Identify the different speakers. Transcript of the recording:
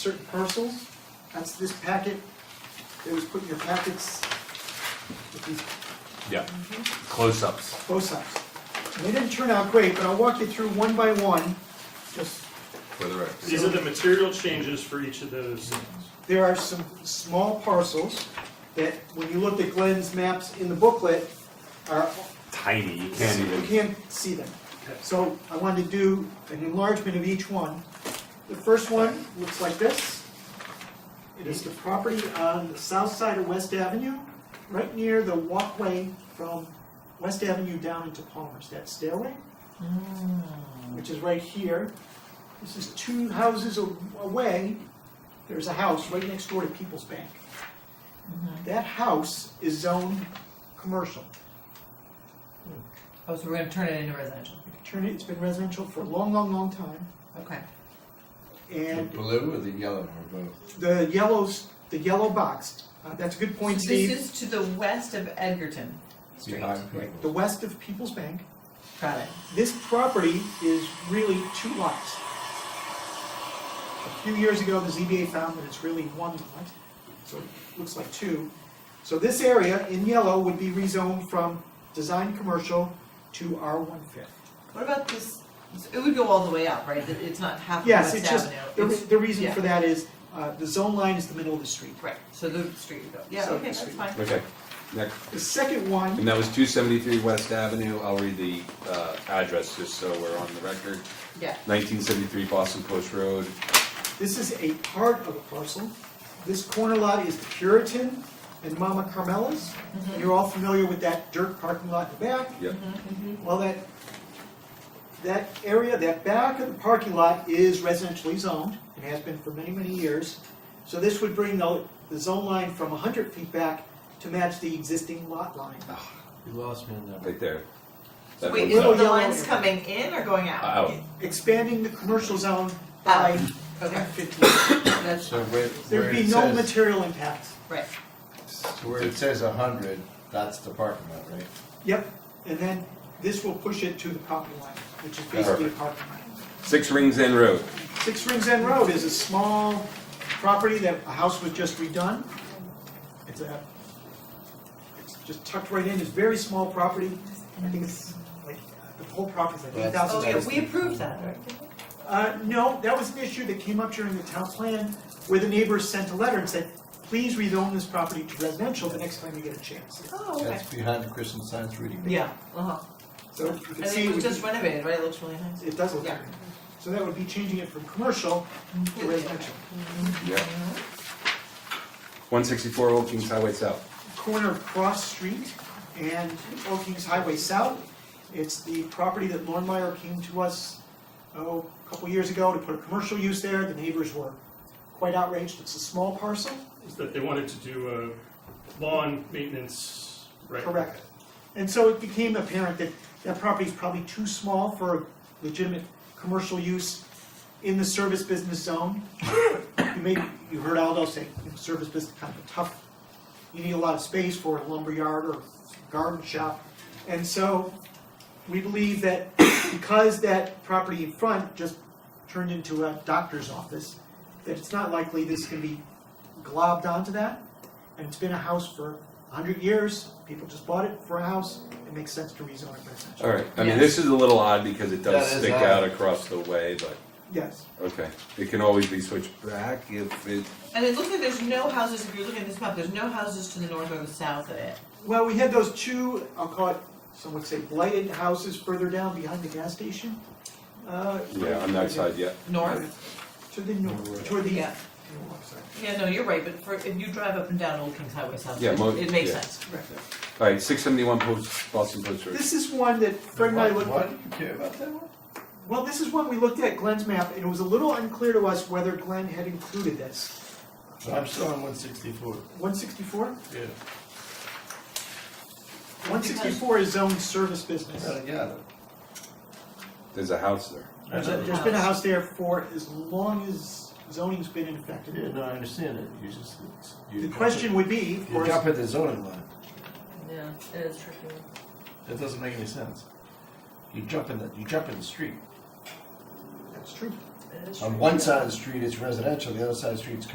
Speaker 1: certain parcels. That's this packet that was put in your packets with these
Speaker 2: Yeah, close-ups.
Speaker 1: both sides. And they didn't turn out great, but I'll walk you through one by one. Just,
Speaker 2: For the record.
Speaker 3: These are the material changes for each of those zones.
Speaker 1: there are some small parcels that, when you looked at Glenn's maps in the booklet, are
Speaker 2: Tiny, you can't
Speaker 1: You
Speaker 2: even,
Speaker 1: can't see them.
Speaker 3: Okay.
Speaker 1: So I wanted to do an enlargement of each one. The first one looks like this. It is the property on the south side of West Avenue, right near the walkway from West Avenue down into Palmer's, that stairway,
Speaker 4: Oh.
Speaker 1: which is right here. This is two houses a- away, there's a house right next door to People's Bank. That house is zoned commercial.
Speaker 4: Oh, so we're gonna turn it into residential,
Speaker 1: Turn it, it's been residential for a long, long, long time,
Speaker 4: okay.
Speaker 5: The
Speaker 1: and
Speaker 5: blue or the yellow or both?
Speaker 1: the yellows, the yellow box, uh, that's a good point,
Speaker 4: So This
Speaker 1: Steve.
Speaker 4: is to the west of Edgerton Street.
Speaker 5: Behind
Speaker 1: The
Speaker 5: people.
Speaker 1: west of People's Bank,
Speaker 4: Got it.
Speaker 1: this property is really two lots. A few years ago, the ZBA found that it's really one lot, so it looks like two. So this area in yellow would be rezoned from design commercial to R one fifth.
Speaker 4: What about this, it would go all the way up, right? It- It's not half of
Speaker 1: Yes,
Speaker 4: West
Speaker 1: it's just,
Speaker 4: Avenue.
Speaker 1: the, re-
Speaker 4: It's-
Speaker 1: the reason
Speaker 4: yeah.
Speaker 1: for that is, uh, the zone line is the middle of the street.
Speaker 4: Right, so the street would go, yeah,
Speaker 1: So
Speaker 4: okay,
Speaker 1: the
Speaker 4: that's
Speaker 1: street.
Speaker 4: fine.
Speaker 2: okay, next.
Speaker 1: The second one
Speaker 2: And that was two seventy-three West Avenue, I'll read the, uh, address just so we're on the record.
Speaker 4: Yeah,
Speaker 2: Nineteen seventy-three Boston Post Road,
Speaker 1: This is a part of a parcel. This corner lot is Puritan and Mama Carmela's. You're all familiar with that dirt parking lot in the back.
Speaker 2: yep,
Speaker 1: Well, that, that area, that back of the parking lot is residentially zoned and has been for many, many years. So this would bring the, the zone line from hundred feet back to match the existing lot line.
Speaker 5: Ah. You lost me on that
Speaker 2: right there. That
Speaker 4: wait,
Speaker 2: one's
Speaker 4: is
Speaker 1: Little yellow
Speaker 4: it the
Speaker 2: up. Uh, oh,
Speaker 4: lines
Speaker 1: area.
Speaker 4: coming in or going out?
Speaker 2: Out,
Speaker 1: Expanding the commercial zone by
Speaker 4: Okay,
Speaker 1: fifteen.
Speaker 4: that's,
Speaker 5: So where,
Speaker 1: There'd
Speaker 5: where
Speaker 1: be
Speaker 5: it
Speaker 1: no
Speaker 5: says,
Speaker 1: material impact.
Speaker 4: right,
Speaker 5: so where it says a hundred, that's the parking lot, right?
Speaker 1: Yep, and then this will push it to the property line, which is basically a
Speaker 2: Perfect.
Speaker 1: parking line.
Speaker 2: Six Rings End Road,
Speaker 1: Six Rings End Road is a small property that a house was just redone. It's a, it's just tucked right in, it's very small property. I think it's like, the whole property's like eight
Speaker 5: That's-
Speaker 4: oh,
Speaker 1: thousand.
Speaker 4: yeah,
Speaker 5: that's
Speaker 4: we
Speaker 5: the-
Speaker 4: approved that, right?
Speaker 1: Uh, no, that was an issue that came up during the town plan where the neighbors sent a letter and said, please rezone this property to residential the next time you get a chance.
Speaker 4: Oh, okay,
Speaker 5: That's behind the Christian Science Reading. Room.
Speaker 4: yeah, uh-huh,
Speaker 1: So you can
Speaker 4: and
Speaker 1: see.
Speaker 4: it
Speaker 1: we-
Speaker 4: was just renovated, right, it looks really nice.
Speaker 1: It does look
Speaker 4: Yeah.
Speaker 1: different. So that would be changing it from commercial to residential.
Speaker 2: yep. One sixty-four Old Kings Highway South.
Speaker 1: Corner of Cross Street and Old Kings Highway South. It's the property that Lornemeyer came to us, oh, a couple years ago to put a commercial use there. The neighbors were quite outraged. It's a small parcel,
Speaker 3: Is that they wanted to do a lawn maintenance, right?
Speaker 1: correct? And so it became apparent that that property is probably too small for legitimate commercial use in the service business zone. You may, you heard Aldo say, you know, service business kind of a tough, you need a lot of space for a lumberyard or garden shop. And so, we believe that because that property in front just turned into a doctor's office, that it's not likely this can be globbed onto that. And it's been a house for a hundred years, people just bought it for a house, it makes sense to rezone it residential.
Speaker 2: Alright, I mean,
Speaker 4: Yeah.
Speaker 2: this is a little odd because it does
Speaker 5: That is
Speaker 2: stick
Speaker 5: odd.
Speaker 2: out across the way, but,
Speaker 1: Yes,
Speaker 2: okay. It can always be switched back if it,
Speaker 4: And it looks like there's no houses, if you're looking at this map, there's no houses to the north or the south of it.
Speaker 1: well, we had those two, I'll call it, some would say blighted houses further down behind the gas station. Uh,
Speaker 2: yeah, on that side, yeah.
Speaker 4: North?
Speaker 1: To the north, toward the,
Speaker 4: Yeah.
Speaker 1: oh, I'm sorry.
Speaker 4: Yeah, no, you're right, but for, if you drive up and down Old Kings Highway South,
Speaker 2: Yeah,
Speaker 4: it
Speaker 2: mo-
Speaker 4: it makes
Speaker 2: yeah.
Speaker 4: sense.
Speaker 1: Right.
Speaker 2: Alright, six seventy-one Post, Boston Post Road.
Speaker 1: This is one that Fred and I
Speaker 5: Why,
Speaker 1: looked
Speaker 5: why do you care about that one?
Speaker 1: Well, this is one we looked at Glenn's map, and it was a little unclear to us whether Glenn had included this.
Speaker 5: I'm still on one sixty-four.
Speaker 1: One sixty-four?
Speaker 5: Yeah.
Speaker 1: One sixty-four is zoned service business.
Speaker 5: I got it.
Speaker 2: There's a house there.
Speaker 5: I know.
Speaker 1: There's been a house there for as long as zoning's been in effect.
Speaker 5: Yeah, no, I understand it, you just. you
Speaker 1: The
Speaker 5: jump
Speaker 1: question would be,
Speaker 5: at-
Speaker 1: of
Speaker 5: You
Speaker 1: course,
Speaker 5: jump at the zoning line,
Speaker 4: Yeah, it is tricky.
Speaker 5: that doesn't make any sense. You jump in the, you jump in the street.
Speaker 1: that's true.
Speaker 6: it is
Speaker 5: On
Speaker 6: true.
Speaker 5: one side of the street it's residential, the other side of the street's